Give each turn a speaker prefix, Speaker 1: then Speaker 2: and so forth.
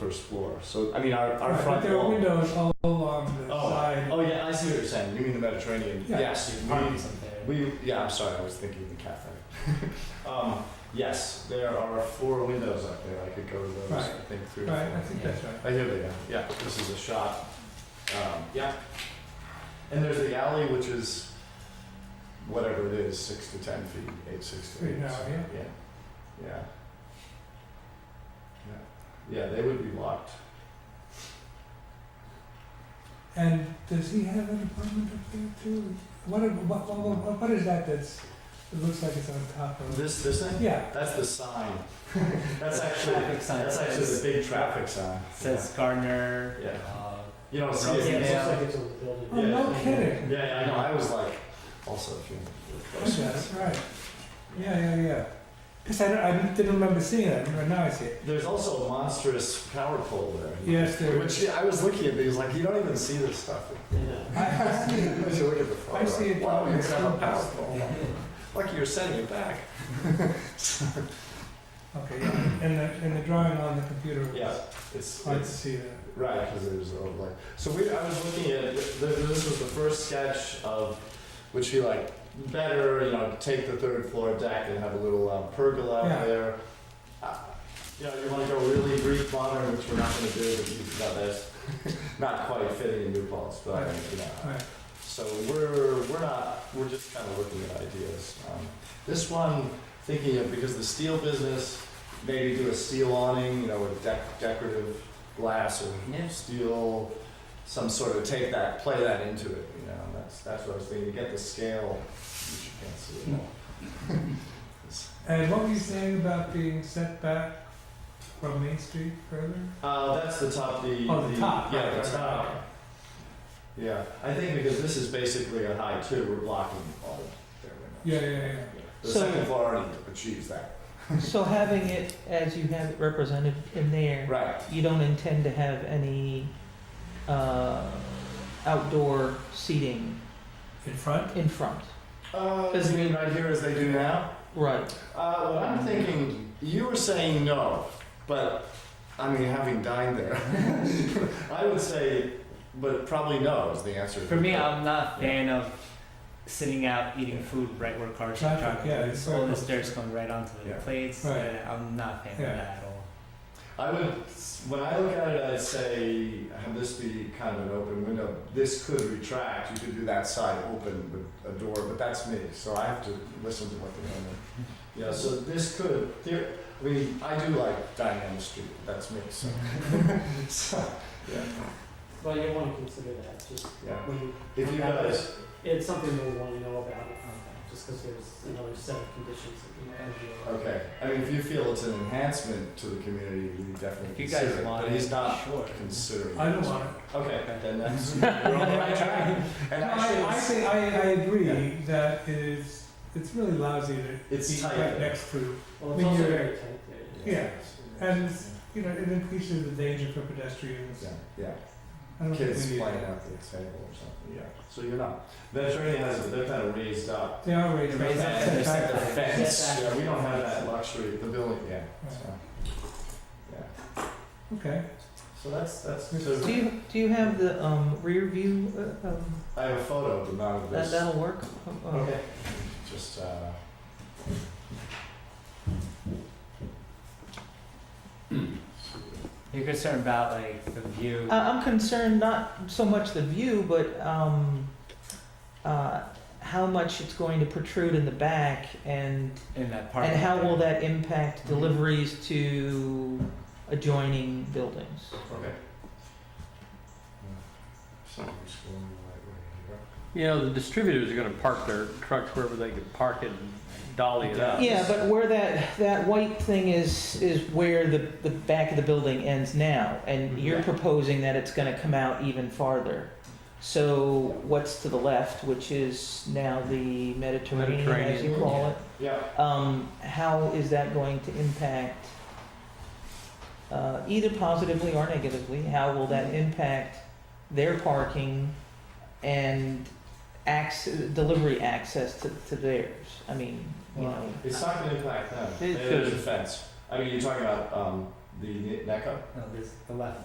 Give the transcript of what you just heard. Speaker 1: first floor. So, I mean, our, our
Speaker 2: Right,
Speaker 1: front
Speaker 2: But there are
Speaker 1: wall.
Speaker 2: windows all along the
Speaker 1: Oh,
Speaker 2: side.
Speaker 1: oh, yeah, I see what you're saying. You mean the Mediterranean?
Speaker 2: Yeah.
Speaker 1: Yes.
Speaker 3: The
Speaker 1: we-
Speaker 3: apartments up there.
Speaker 1: We, yeah, I'm sorry, I was thinking the cafe. um, yes, there are four windows up there. I could go to those, I
Speaker 2: Right.
Speaker 1: think, through.
Speaker 2: Right, I think that's right.
Speaker 1: I hear they are. Yeah, this is a shot. Um, yeah. And there's the alley, which is whatever it is, six to ten feet, eight, six to eight.
Speaker 2: Right now, yeah.
Speaker 1: Yeah. Yeah. Yeah. Yeah, they would be locked.
Speaker 2: And does he have an apartment up there too? What, what, what- what, what is that that's, it looks like it's on top of?
Speaker 1: This, this thing?
Speaker 2: Yeah,
Speaker 1: That's the sign. That's actually,
Speaker 3: Traffic sign.
Speaker 1: that's actually the big traffic sign.
Speaker 3: Says Gardner.
Speaker 1: Yeah.
Speaker 3: uh,
Speaker 1: You don't see
Speaker 3: Yeah,
Speaker 1: it.
Speaker 3: it's
Speaker 1: Yeah,
Speaker 3: just
Speaker 4: it's on the building.
Speaker 2: oh, no kidding.
Speaker 1: yeah, I know. I was like, also, if you.
Speaker 2: Okay, that's right. Yeah, yeah, yeah. Cause I, don't- I didn't remember seeing that, but now I see it.
Speaker 1: There's also a monstrous power pole there.
Speaker 2: Yes, there
Speaker 1: Which
Speaker 2: is.
Speaker 1: yeah, I was looking at these, like, you don't even see this stuff.
Speaker 4: Yeah.
Speaker 2: I, I see it.
Speaker 1: As you look at the photo,
Speaker 2: I see it.
Speaker 1: Wow, you have a power pole.
Speaker 2: Yeah.
Speaker 1: Lucky you're sending it back.
Speaker 2: Okay, yeah, and the, and the drawing on the computer
Speaker 1: Yeah,
Speaker 2: was
Speaker 1: it's,
Speaker 2: hard to
Speaker 1: it's,
Speaker 2: see that.
Speaker 1: right, because there's a, like, so we, I was looking at, th- this was the first sketch of, which he like, better, you know, take the third floor deck and have a little um, pergola
Speaker 2: Yeah.
Speaker 1: out there. Uh, You know, you wanna go really Greek modern, which we're not gonna do, but you, no, that's not quite fitting in New Paltz, but,
Speaker 2: Right.
Speaker 1: you know.
Speaker 2: Right,
Speaker 1: So we're, we're not, we're just kind of looking at ideas. Um, This one, thinking of, because the steel business, maybe do a steel awning, you know, with dec- decorative glass or
Speaker 3: Yeah.
Speaker 1: steel, some sort of take that, play that into it, you know, and that's, that's what I was thinking, to get the scale, which you can't see at all.
Speaker 2: and what were you saying about being set back from Main Street further?
Speaker 1: Uh, that's the top, the.
Speaker 2: Oh, the top,
Speaker 1: Yeah,
Speaker 2: right,
Speaker 1: the
Speaker 2: right,
Speaker 1: top.
Speaker 2: right.
Speaker 1: Yeah, I think because this is basically a high two, we're blocking all of their windows.
Speaker 2: Yeah, yeah, yeah.
Speaker 1: The
Speaker 5: So-
Speaker 1: second floor already achieves that.
Speaker 5: So having it as you have it represented in there,
Speaker 1: Right.
Speaker 5: you don't intend to have any uh, outdoor seating
Speaker 2: In front?
Speaker 5: in front,
Speaker 1: Uh,
Speaker 5: Does
Speaker 1: you
Speaker 5: it
Speaker 1: mean
Speaker 5: mean-
Speaker 1: right here as they do now?
Speaker 5: right?
Speaker 1: Uh, what I'm thinking, you were saying no, but I mean, having dined there, I would say, but probably no is the answer.
Speaker 3: For me, I'm not a fan of sitting out eating food right where cars are
Speaker 2: Traffic,
Speaker 3: parked.
Speaker 2: yeah, it's
Speaker 3: all
Speaker 2: very
Speaker 3: this
Speaker 2: close.
Speaker 3: dirt's going right onto the
Speaker 1: Yeah.
Speaker 3: plates.
Speaker 2: Right.
Speaker 3: and I'm not a fan
Speaker 2: Yeah.
Speaker 3: of that at all.
Speaker 1: I would, when I look at it, I'd say, have this be kind of an open window. This could retract. You could do that side open with a door, but that's me, so I have to listen to what they're doing. Yeah, so this could, there, I mean, I do like dining on the street. That's me, so. so yeah,
Speaker 4: But you want to consider that, just
Speaker 1: yeah.
Speaker 4: when you.
Speaker 1: If you guys,
Speaker 4: It's something we want to know about, um, just because there's another set of conditions that we have to deal with.
Speaker 1: okay, I mean, if you feel it's an enhancement to the community, we definitely
Speaker 3: If you
Speaker 1: consider
Speaker 3: guys
Speaker 1: it,
Speaker 3: want
Speaker 1: but
Speaker 3: it,
Speaker 1: he's not
Speaker 3: sure.
Speaker 1: considering.
Speaker 2: I
Speaker 1: it.
Speaker 2: don't want it.
Speaker 1: Okay, then that's, we're on the right track. And
Speaker 2: No, I, I
Speaker 1: actually,
Speaker 2: think, I, I
Speaker 1: Yeah.
Speaker 2: agree that it is, it's really lousy to
Speaker 1: It's
Speaker 2: be
Speaker 1: tight.
Speaker 2: right next to,
Speaker 4: Well, it's
Speaker 2: When
Speaker 4: also
Speaker 2: you're-
Speaker 4: very tight there.
Speaker 2: yeah, and-
Speaker 1: Yeah.
Speaker 2: you know, it increases the danger for pedestrians.
Speaker 1: Yeah, yeah.
Speaker 2: I don't think
Speaker 1: Kids
Speaker 2: we need
Speaker 1: playing
Speaker 2: that.
Speaker 1: out the table or something, yeah. So you're not, Mediterranean has, they're kind of raised up.
Speaker 2: They are raised.
Speaker 3: Raise
Speaker 2: up.
Speaker 3: up
Speaker 2: That's
Speaker 1: And
Speaker 2: a
Speaker 1: it's like the
Speaker 2: fact.
Speaker 1: fence,
Speaker 4: Setback.
Speaker 1: yeah, we don't have that luxury, the building, yeah,
Speaker 2: Right.
Speaker 1: so, yeah.
Speaker 2: Okay,
Speaker 1: So that's, that's,
Speaker 5: Do
Speaker 1: so
Speaker 5: you do you have the um, rear view? Uh, um,
Speaker 1: I have a photo, but not of
Speaker 5: that
Speaker 1: this.
Speaker 5: that'll work. Uh, uh,
Speaker 1: Okay. Just, uh.
Speaker 3: You're concerned about like the view.
Speaker 5: I- I'm concerned not so much the view, but um, uh, how much it's going to protrude in the back, and
Speaker 3: in that part.
Speaker 5: and how will that impact deliveries to adjoining buildings?
Speaker 1: Okay. So I'm just going the right way here.
Speaker 6: You know, the distributors are gonna park their trucks wherever they can park it and dolly it up.
Speaker 5: Yeah, but where that, that white thing is, is where the, the back of the building ends now, and you're
Speaker 1: Yeah.
Speaker 5: proposing that it's gonna come out even farther. So what's to the left, which is now the Mediterranean, as you
Speaker 6: Mediterranean,
Speaker 5: call it?
Speaker 1: Yeah,
Speaker 5: Um, how is that going to impact, uh, either positively or negatively, how will that impact their parking and access, delivery access to, to theirs? I mean, you know.
Speaker 1: it's not gonna impact them,
Speaker 5: It
Speaker 1: there's a fence, I mean, you're talking about, um, the ne- NECA?
Speaker 3: No, this, the left